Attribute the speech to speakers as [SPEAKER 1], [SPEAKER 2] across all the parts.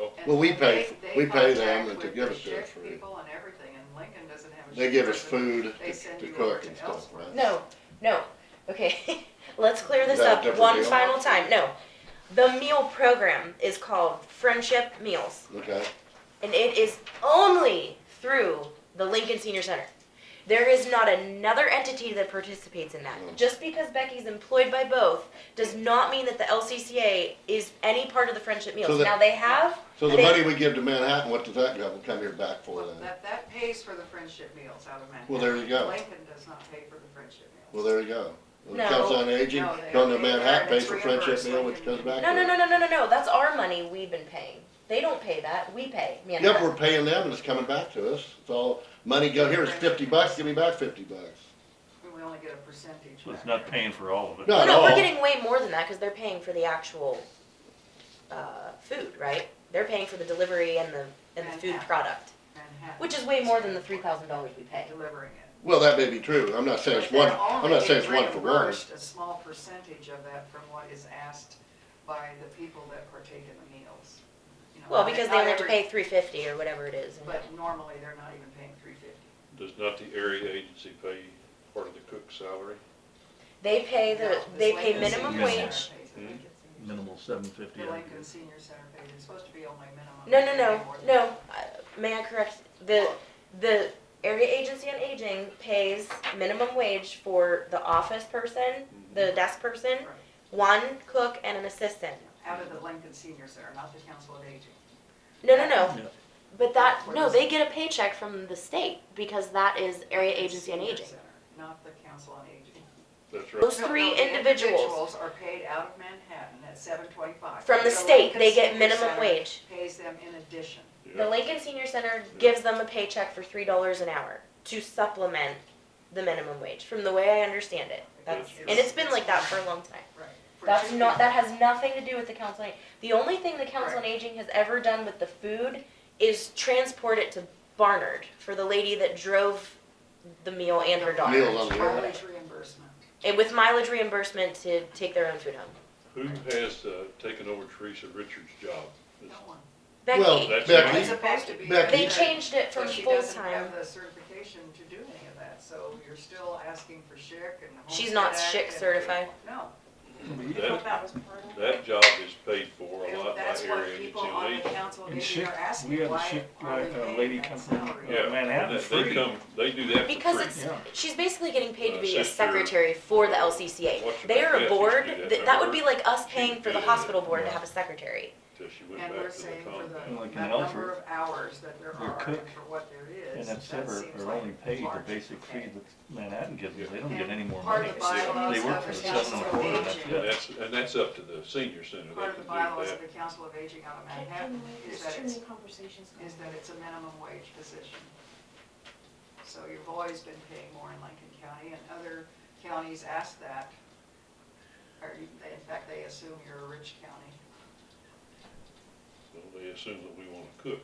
[SPEAKER 1] Oh,
[SPEAKER 2] And
[SPEAKER 3] Well, we
[SPEAKER 2] they-
[SPEAKER 3] pay-
[SPEAKER 2] they
[SPEAKER 3] we pay them
[SPEAKER 2] contact
[SPEAKER 3] and to
[SPEAKER 2] with
[SPEAKER 3] give
[SPEAKER 2] the
[SPEAKER 3] us their
[SPEAKER 2] sheriff
[SPEAKER 3] food.
[SPEAKER 2] People and everything, and Lincoln doesn't have a. sheriff
[SPEAKER 3] They give us
[SPEAKER 2] person.
[SPEAKER 3] food
[SPEAKER 2] They
[SPEAKER 3] to-
[SPEAKER 2] send
[SPEAKER 3] to
[SPEAKER 2] you over
[SPEAKER 3] cook
[SPEAKER 2] to
[SPEAKER 3] and stuff,
[SPEAKER 2] Ellsworth.
[SPEAKER 3] right?
[SPEAKER 4] No, no. Okay, let's clear this
[SPEAKER 3] Is that a
[SPEAKER 4] up
[SPEAKER 3] different
[SPEAKER 4] one
[SPEAKER 3] deal?
[SPEAKER 4] final time. No, the meal program is called Friendship Meals,
[SPEAKER 3] Okay,
[SPEAKER 4] and it is only through the Lincoln Senior Center. There is not another entity that participates in that.
[SPEAKER 3] Mm.
[SPEAKER 4] Just because Becky's employed by both does not mean that the LCCA is any part of the Friendship Meals.
[SPEAKER 3] the-
[SPEAKER 4] now they have.
[SPEAKER 3] so the
[SPEAKER 4] they-
[SPEAKER 3] money we give to Manhattan, what does that go, come here back for
[SPEAKER 2] Well,
[SPEAKER 3] then?
[SPEAKER 2] that, that pays for the friendship meals out of Manhattan.
[SPEAKER 3] Well, there you go.
[SPEAKER 2] Lincoln does not pay for the friendship
[SPEAKER 3] Well,
[SPEAKER 2] meals.
[SPEAKER 3] there you go. When
[SPEAKER 4] No.
[SPEAKER 3] it comes on aging,
[SPEAKER 2] No, they-
[SPEAKER 3] come to
[SPEAKER 2] they-
[SPEAKER 3] Manhattan,
[SPEAKER 2] they're-
[SPEAKER 3] pay
[SPEAKER 2] it's
[SPEAKER 3] for friendship
[SPEAKER 2] reimbursed,
[SPEAKER 3] meal,
[SPEAKER 2] like
[SPEAKER 3] which
[SPEAKER 2] in-
[SPEAKER 3] comes back. to
[SPEAKER 4] No, no,
[SPEAKER 3] us.
[SPEAKER 4] no, no, no, no, no. That's our money we've been paying. They don't pay that. We pay.
[SPEAKER 3] Yep,
[SPEAKER 4] Manhattan.
[SPEAKER 3] we're paying them and it's coming back to us. It's all, money go, here's fifty bucks, give me back fifty bucks.
[SPEAKER 2] We only get a percentage
[SPEAKER 5] So it's
[SPEAKER 2] back.
[SPEAKER 5] not paying for all of it.
[SPEAKER 3] No.
[SPEAKER 4] Well, no,
[SPEAKER 3] at
[SPEAKER 4] we're
[SPEAKER 3] all.
[SPEAKER 4] getting way more than that because they're paying for the actual uh, food, right? They're paying for the delivery and the and the food
[SPEAKER 2] Manhattan.
[SPEAKER 4] product,
[SPEAKER 2] Manhattan
[SPEAKER 4] which is way more than the three thousand dollars we pay.
[SPEAKER 2] Delivering it.
[SPEAKER 3] Well, that may be true. I'm not saying it's
[SPEAKER 2] But
[SPEAKER 3] one,
[SPEAKER 2] they're only
[SPEAKER 3] I'm not saying it's
[SPEAKER 2] getting
[SPEAKER 3] one for one.
[SPEAKER 2] reimbursed A small percentage of that from what is asked by the people that partake in the meals. You know,
[SPEAKER 4] Well,
[SPEAKER 2] not-
[SPEAKER 4] because they
[SPEAKER 2] not
[SPEAKER 4] only have to
[SPEAKER 2] every-
[SPEAKER 4] pay three fifty or whatever it is.
[SPEAKER 2] But normally, they're not even paying three fifty.
[SPEAKER 1] Does not the area agency pay part of the cook's salary?
[SPEAKER 4] They pay the they pay minimum
[SPEAKER 5] Senior Center.
[SPEAKER 4] wage.
[SPEAKER 5] Minimal seven fifty.
[SPEAKER 2] The Lincoln Senior Center pays, it's supposed to be only minimum.
[SPEAKER 4] No,
[SPEAKER 2] They
[SPEAKER 4] no,
[SPEAKER 2] pay
[SPEAKER 4] no,
[SPEAKER 2] more than
[SPEAKER 4] no. Uh, May I correct the the area agency on aging pays minimum wage for the office person, the desk person,
[SPEAKER 2] that. Mm-hmm. Right.
[SPEAKER 4] one cook, and an assistant.
[SPEAKER 2] Out of the Lincoln Senior Center, not the Council of Aging.
[SPEAKER 4] No, no, no.
[SPEAKER 5] Yeah.
[SPEAKER 4] But that,
[SPEAKER 2] What
[SPEAKER 4] no,
[SPEAKER 2] is
[SPEAKER 4] they get a paycheck from the state because that is area agency on
[SPEAKER 2] Senior
[SPEAKER 4] aging.
[SPEAKER 2] Center, Not the Council on Aging.
[SPEAKER 1] That's right.
[SPEAKER 4] Those
[SPEAKER 2] No, no,
[SPEAKER 4] three
[SPEAKER 2] the
[SPEAKER 4] individuals
[SPEAKER 2] Individuals are paid out of Manhattan at seven twenty-five.
[SPEAKER 4] from the state, they get minimum wage.
[SPEAKER 2] Pays them in addition.
[SPEAKER 4] The Lincoln Senior Center gives them a paycheck for three dollars an hour to supplement the minimum wage, from the way I understand it. That's,
[SPEAKER 1] That's
[SPEAKER 4] and it's been like that for a long time.
[SPEAKER 2] Right. For
[SPEAKER 4] That's
[SPEAKER 2] two
[SPEAKER 4] not,
[SPEAKER 2] people.
[SPEAKER 4] that has nothing to do with the council on, Aging. the only thing the council on aging has ever done with the food is transport it to Barnard for the lady that drove the meal and her daughter.
[SPEAKER 3] Meals on the air.
[SPEAKER 2] Mileage reimbursement.
[SPEAKER 4] And with mileage reimbursement to take their own food home.
[SPEAKER 1] Who has uh, taken over Teresa Richards' job?
[SPEAKER 2] No one.
[SPEAKER 4] Becky,
[SPEAKER 3] Well,
[SPEAKER 1] That's
[SPEAKER 2] It's
[SPEAKER 3] Becky,
[SPEAKER 1] right.
[SPEAKER 2] supposed to be.
[SPEAKER 3] Becky-
[SPEAKER 4] they changed it from
[SPEAKER 2] But she
[SPEAKER 4] full
[SPEAKER 2] doesn't
[SPEAKER 4] time.
[SPEAKER 2] have the certification to do any of that, so you're still asking for SHIC and the
[SPEAKER 4] She's not
[SPEAKER 2] Homestead
[SPEAKER 4] SHIC
[SPEAKER 2] Act and-
[SPEAKER 4] certified.
[SPEAKER 2] No.
[SPEAKER 1] That, that job is paid for a lot by
[SPEAKER 2] That's what
[SPEAKER 1] area agency
[SPEAKER 2] people
[SPEAKER 1] on
[SPEAKER 2] on the
[SPEAKER 1] aging.
[SPEAKER 2] council
[SPEAKER 5] And
[SPEAKER 2] meeting are
[SPEAKER 5] SHIC
[SPEAKER 2] asking,
[SPEAKER 5] we had a
[SPEAKER 2] why
[SPEAKER 5] SHIC
[SPEAKER 2] are
[SPEAKER 5] like, uh,
[SPEAKER 2] they
[SPEAKER 5] lady
[SPEAKER 2] paying that
[SPEAKER 5] come from-
[SPEAKER 2] salary?
[SPEAKER 1] Yeah,
[SPEAKER 5] Manhattan
[SPEAKER 1] they-
[SPEAKER 5] for free.
[SPEAKER 1] They come, they do that for free.
[SPEAKER 4] Because it's
[SPEAKER 5] Yeah.
[SPEAKER 4] she's basically getting paid to
[SPEAKER 1] Uh,
[SPEAKER 4] be a
[SPEAKER 1] sister-
[SPEAKER 4] secretary for the LCCA.
[SPEAKER 1] What's her
[SPEAKER 4] They are
[SPEAKER 1] name?
[SPEAKER 4] a board.
[SPEAKER 1] Yeah, she did
[SPEAKER 4] That, that would be like us
[SPEAKER 1] She
[SPEAKER 4] paying for the
[SPEAKER 1] did.
[SPEAKER 4] hospital board to
[SPEAKER 5] Yeah.
[SPEAKER 4] have a secretary.
[SPEAKER 1] Till she went
[SPEAKER 2] And we're
[SPEAKER 1] back to the
[SPEAKER 2] saying for
[SPEAKER 1] convent.
[SPEAKER 2] the,
[SPEAKER 5] Like
[SPEAKER 2] the
[SPEAKER 5] in
[SPEAKER 2] number
[SPEAKER 5] Alfred,
[SPEAKER 2] of hours that there
[SPEAKER 5] your
[SPEAKER 2] are and
[SPEAKER 5] cook
[SPEAKER 2] for what there
[SPEAKER 5] And
[SPEAKER 2] is, that
[SPEAKER 5] that's ever,
[SPEAKER 2] seems
[SPEAKER 5] are
[SPEAKER 2] like
[SPEAKER 5] only paid the
[SPEAKER 2] large.
[SPEAKER 5] basic fee
[SPEAKER 2] Okay.
[SPEAKER 5] that Manhattan gives them, they don't get
[SPEAKER 2] And
[SPEAKER 5] any more
[SPEAKER 2] part
[SPEAKER 5] money.
[SPEAKER 2] of the
[SPEAKER 5] They
[SPEAKER 2] bylaws
[SPEAKER 5] they work
[SPEAKER 2] of
[SPEAKER 5] for the
[SPEAKER 2] the
[SPEAKER 5] seven and a quarter,
[SPEAKER 2] council
[SPEAKER 5] that's
[SPEAKER 2] of
[SPEAKER 1] And
[SPEAKER 5] it.
[SPEAKER 1] that's, and that's up to the senior center. They
[SPEAKER 2] Part of
[SPEAKER 1] can
[SPEAKER 2] the
[SPEAKER 1] do
[SPEAKER 2] bylaws
[SPEAKER 1] that.
[SPEAKER 2] of the council of aging out of Manhattan is that it's is that it's a minimum wage position. So you've always been paying more in Lincoln County, and other counties ask that. Or you- they- in fact, they assume you're a rich county.
[SPEAKER 1] Well, They assume that we wanna cook.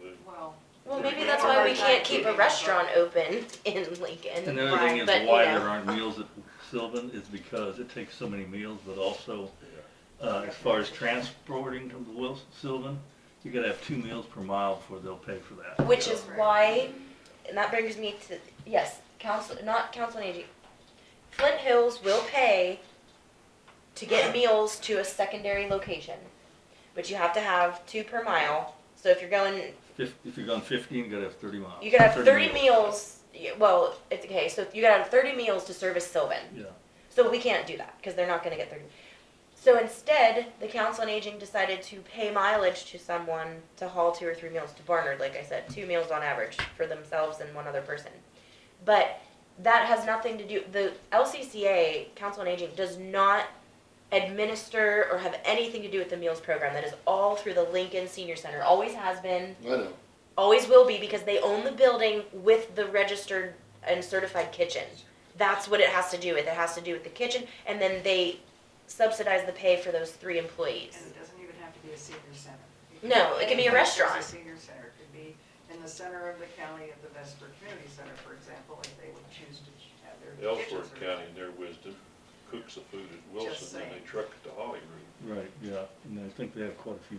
[SPEAKER 1] They-
[SPEAKER 2] Well,
[SPEAKER 4] Well,
[SPEAKER 1] Yeah,
[SPEAKER 4] maybe
[SPEAKER 1] we
[SPEAKER 4] that's
[SPEAKER 1] have
[SPEAKER 4] why
[SPEAKER 1] a hard
[SPEAKER 4] we
[SPEAKER 1] time
[SPEAKER 4] can't keep a
[SPEAKER 2] keeping
[SPEAKER 4] restaurant open in Lincoln.
[SPEAKER 5] And the other thing
[SPEAKER 4] but, you
[SPEAKER 5] is
[SPEAKER 4] know.
[SPEAKER 5] why there aren't meals at Sylvan is because it takes so many meals, but also, uh, as far as transporting to Wilson, Sylvan, you gotta have two meals per mile before they'll pay for that.
[SPEAKER 4] Which is why, and that brings me to, yes, council, not council on aging. Flint Hills will pay to get meals to a secondary location, but you have to have two per mile. So if you're going,
[SPEAKER 5] If, if you're going fifteen, you gotta have thirty miles.
[SPEAKER 4] you could have thirty meals, y- well, it's okay, so you gotta have thirty meals to service Sylvan.
[SPEAKER 5] Yeah.
[SPEAKER 4] So we can't do that, cause they're not gonna get thirty. So instead, the council on aging decided to pay mileage to someone to haul two or three meals to Barnard, like I said, two meals on average for themselves and one other person. But that has nothing to do, the LCCA, Council on Aging, does not administer or have anything to do with the meals program. That is all through the Lincoln Senior Center, always has been,
[SPEAKER 3] I know.
[SPEAKER 4] always will be, because they own the building with the registered and certified kitchen. That's what it has to do with. It has to do with the kitchen, and then they subsidize the pay for those three employees.
[SPEAKER 2] and it doesn't even have to be a senior center.
[SPEAKER 4] No, it can be a restaurant.
[SPEAKER 2] It's a senior center, it could be in the center of the county at the Vesper Community Center, for example, if they would choose to have their kitchens.
[SPEAKER 1] Ellsworth
[SPEAKER 2] or-
[SPEAKER 1] County, in their wisdom, cooks the food at Wilson, and
[SPEAKER 2] saying.
[SPEAKER 1] they truck it to Hollywood.
[SPEAKER 5] Right, yeah, and I think they have quite a few